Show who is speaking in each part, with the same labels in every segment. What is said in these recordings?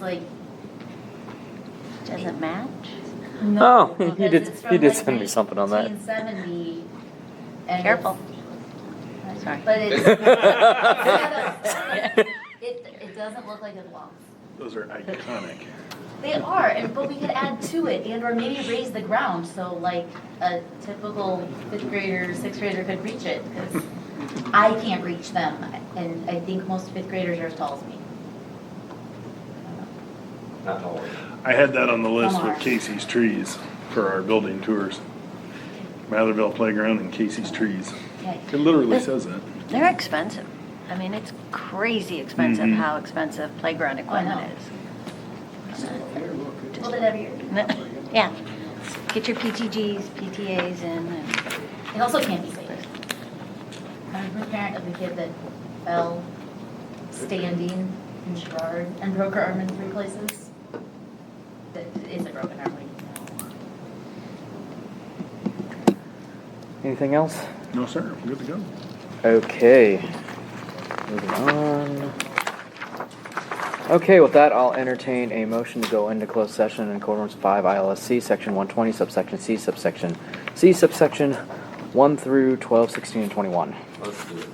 Speaker 1: like, doesn't match?
Speaker 2: No,
Speaker 1: No,
Speaker 2: you
Speaker 1: because
Speaker 2: Oh, did,
Speaker 1: it's from
Speaker 2: you did
Speaker 1: like
Speaker 2: send me something on that.
Speaker 1: 1970, and
Speaker 3: Careful.
Speaker 1: it's-
Speaker 3: Sorry.
Speaker 1: But it's, it, it doesn't look like it belongs.
Speaker 4: Those are iconic.
Speaker 1: They are, and, but we could add to it and or maybe raise the ground, so like a typical fifth grader, sixth grader could reach it. 'cause I can't reach them, and I think most fifth graders are as tall as me.
Speaker 5: Not all.
Speaker 4: I had that on the list
Speaker 1: Come on.
Speaker 4: with Casey's Trees for our building tours. Matherville Playground and Casey's Trees.
Speaker 1: Yeah,
Speaker 4: It literally says that.
Speaker 3: They're expensive. I mean, it's crazy expensive
Speaker 4: Mhm.
Speaker 3: how expensive playground equipment is.
Speaker 1: a little bit every year.
Speaker 3: N- Yeah. Get your PTGs, PTAs in. and-
Speaker 1: It also can't be safe. I'm a parent of a kid that fell standing in Gerard and broke her arm in three places. That is a broken arm, like, no.
Speaker 2: Anything else?
Speaker 4: No, sir, I'm good to go.
Speaker 2: Okay. Moving on. Okay, with that, I'll entertain a motion to go into closed session in accordance with five ILSC, section one twenty, subsection C, subsection C, subsection one through 12, 16, and twenty-one.
Speaker 5: Let's do it.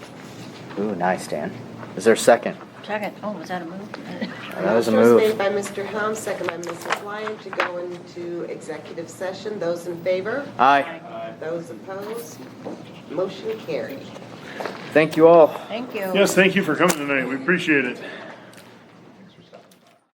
Speaker 2: Ooh, nice, Dan. Is there a second?
Speaker 3: Second, oh, was that a move?
Speaker 2: That was a
Speaker 6: Motion was
Speaker 2: move.
Speaker 6: made by Mr. Helm, second by Mrs. Lyon, to go into executive session. Those in favor?
Speaker 2: Aye.
Speaker 6: Those opposed? Motion carried.
Speaker 2: Thank you all.
Speaker 3: Thank you.
Speaker 4: Yes, thank you for coming tonight. We appreciate it.